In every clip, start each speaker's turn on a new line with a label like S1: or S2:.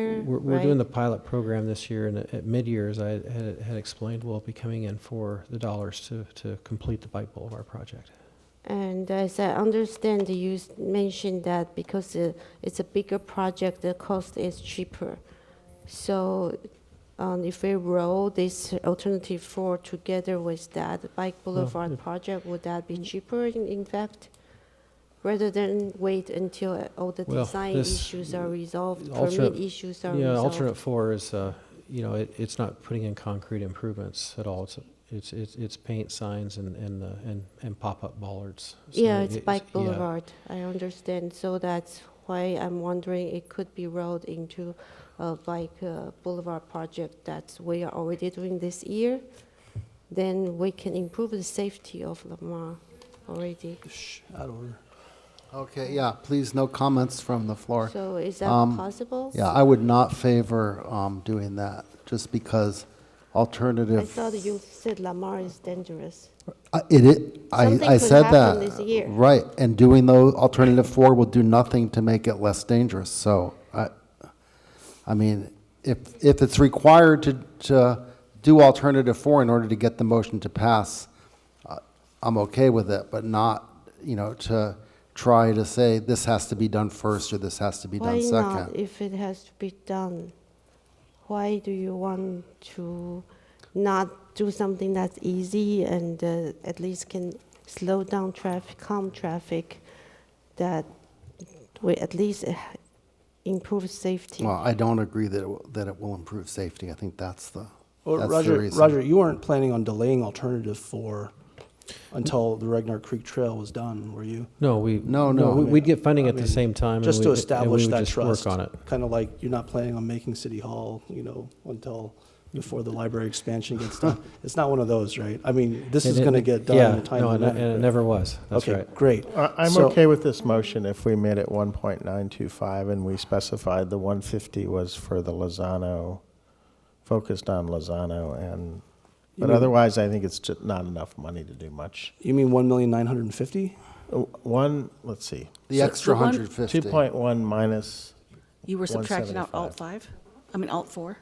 S1: Mm,
S2: We're, we're doing the pilot program this year, and at at mid-year, as I had, had explained, we'll be coming in for the dollars to, to complete the Bike Boulevard project.
S1: And as I understand, you s- mentioned that because uh, it's a bigger project, the cost is cheaper. So um, if we roll this alternative four together with that Bike Boulevard
S2: it-
S1: project, would that
S2: Mm.
S1: be cheaper in, in fact? Rather than wait until uh, all the
S2: Well,
S1: design
S2: this
S1: issues are resolved, permit
S2: alternate-
S1: issues are
S2: Yeah, alternate
S1: resolved?
S2: four is, uh, you know, it, it's not putting in concrete improvements at all. It's, it's, it's, it's paint signs and, and, uh, and, and pop-up bollards. So
S1: Yeah, it's
S2: it-
S1: Bike
S2: yeah.
S1: Boulevard, I understand. So that's why I'm wondering it could be rolled into a Bike uh, Boulevard project that we are already doing this year. Then we can improve the safety of Lamar already.
S3: Shh, out of order.
S4: Okay, yeah, please, no comments from the floor.
S1: So is that
S4: Um,
S1: possible?
S4: Yeah, I would not favor um, doing that, just because
S1: I
S4: alternative.
S1: thought you said Lamar is dangerous.
S4: I- It, it, I,
S1: Something
S4: I
S1: could
S4: said that.
S1: happen this year.
S4: Right, and doing those, alternative four will do nothing to make it less dangerous, so I, I mean, if, if it's required to, to do alternative four in order to get the motion to pass, uh, I'm okay with it, but not, you know, to try to say this has to be done first or this has to be
S1: Why
S4: done
S1: not,
S4: second.
S1: if it has to be done? Why do you want to not do something that's easy and uh, at least can slow down traffic, calm traffic, that we at least uh, improve safety?
S4: Well, I don't agree that, it will- that it will improve safety, I think that's the,
S3: Well,
S4: that's the
S3: Roger,
S4: reason.
S3: Roger, you weren't planning on delaying alternative four until the Regnar Creek Trail was done, were you?
S2: No, we.
S4: No, no,
S2: we-
S4: I
S2: We'd get funding at the same time. and we-
S3: Just to
S2: and we
S3: establish
S2: would
S3: that
S2: just
S3: trust.
S2: Work on it.
S3: Kind of like you're not planning on making City Hall, you know, until before the library expansion gets done. It's not one of those, right? I mean, this is
S2: And it-
S3: going to get done
S2: yeah,
S3: in a timely
S2: no, and it-
S3: manner,
S2: And it
S3: right?
S2: never was, that's
S3: Okay,
S2: right.
S3: great.
S5: I- I'm
S3: So-
S5: okay with this motion if we made it 1.925 and we specified the 150 was for the Lozano, focused on Lozano and, but
S3: mean-
S5: otherwise, I think it's just not enough money to do much.
S3: You mean one million nine hundred and fifty?
S5: Uh, One, let's see,
S4: the extra
S6: one-
S4: hundred fifty.
S5: 2.1 minus,
S6: You were subtracting out alt
S5: 175.
S6: five, I mean alt four.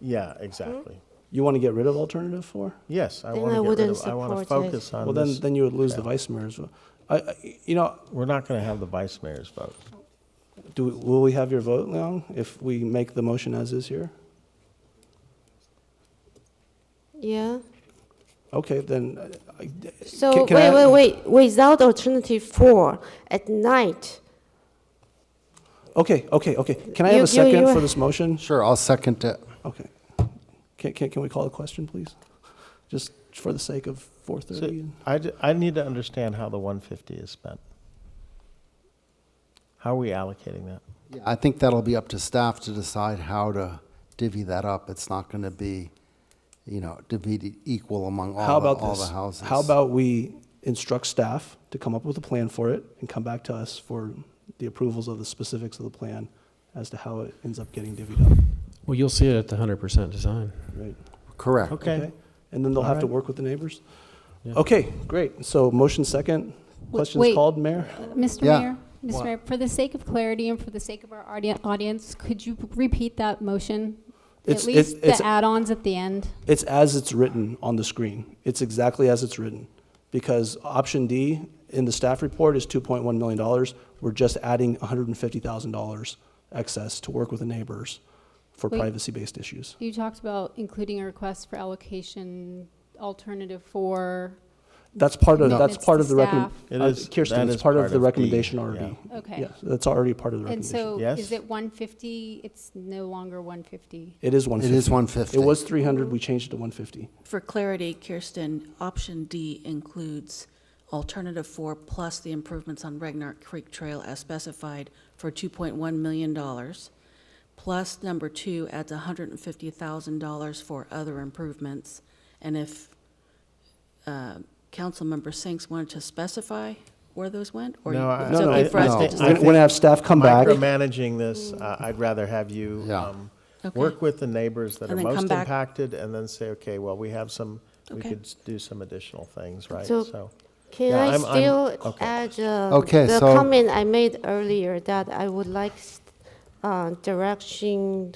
S5: yeah, exactly.
S3: You want to get rid of alternative four?
S5: Yes, I
S1: Hmm? Then
S5: want
S1: I
S5: to get rid
S1: wouldn't
S5: of, I want to
S1: support it.
S5: focus on
S2: Um,
S3: Well, then,
S5: this.
S3: then you would lose the vice mayor's. vote. I, I, you know,
S5: We're not going to have the vice mayor's vote.
S3: do, we- will we have your vote now if we make the motion as is here?
S1: Yeah?
S3: Okay, then, uh, I-
S1: So
S3: Can- can
S1: wait,
S3: I-
S1: wait, wait, without alternative four, at night,
S3: okay, okay, okay. Can I have
S1: You-
S3: a
S1: you-
S3: second
S1: you-
S3: for this motion?
S4: Sure, I'll second it.
S3: Okay. Can, can, can we call a question, please? Just for the sake of four
S5: So
S3: thirty?
S5: I, d- I need to understand how the 150 is spent. How are we allocating that?
S4: Yeah, I think that'll be up to staff to decide how to divvy that up. It's not going to be, you know, divvied equal among
S3: How
S4: all, the-
S3: about
S4: all the
S3: this?
S4: houses.
S3: How about we instruct staff to come up with a plan for it and come back to us for the approvals of the specifics of the plan as to how it ends up getting divvied up,
S2: Well, you'll see it at the hundred percent design.
S3: right?
S4: Correct.
S5: Okay.
S3: And then they'll have to
S5: Alright.
S3: work with the neighbors?
S2: Yeah.
S3: Okay, great. So motion second, questions
S7: wait.
S3: called, Mayor?
S7: Mr.
S4: Yeah.
S7: Mayor, Mr. Mayor, for the sake of clarity and for the sake of our audi- audience, could you repeat that
S3: It's-
S7: motion? At
S3: it's-
S7: least
S3: it's-
S7: the add-ons at the end.
S3: It's as it's written on the screen. It's exactly as it's written. Because option D in the staff report is $2.1 million. We're just adding $150,000 excess to work with the neighbors for
S7: Wait.
S3: privacy-based issues.
S7: You talked about including a request for allocation alternative for,
S3: That's part of, that's
S7: Commitments
S3: part
S7: to
S3: of the recommend.
S7: staff.
S5: It
S3: uh,
S5: is-
S3: Kirsten,
S5: that
S3: it's
S5: is
S3: part of
S5: part
S3: the
S5: of D,
S3: recommendation already.
S5: yeah.
S7: Okay.
S3: Yeah, that's already part of the
S7: and
S3: recommendation.
S7: so
S5: Yes.
S7: is it 150? It's no longer 150.
S3: It is
S4: It
S3: 150.
S4: is 150.
S3: It was 300, we changed it to 150.
S6: For clarity, Kirsten, option D includes alternative four plus the improvements on Regnar Creek Trail as specified for two point one million dollars. Plus number two adds hundred and fifty thousand dollars for other improvements. And if, uh, Councilmember Sinks wanted to specify where those went? or
S5: No, I-
S6: It's
S3: No, no,
S6: okay for us
S4: no.
S6: to
S4: I
S3: We're
S6: just.
S3: gonna- we're gonna have staff come back.
S5: Micromanaging this, uh, I'd rather have you
S4: Yeah.
S5: um,
S6: Okay.
S5: work with the neighbors that are
S6: And then come
S5: most
S6: back.
S5: impacted and then say, okay, well, we have some, we
S6: Okay.
S5: could s- do some additional things, right?
S1: So-
S5: So,
S1: Can
S5: Yeah,
S1: I
S5: I'm- I'm-
S1: still
S5: okay.
S1: add uh,
S4: Okay,
S1: the
S4: so-
S1: comment I made earlier that I would like s- uh, direction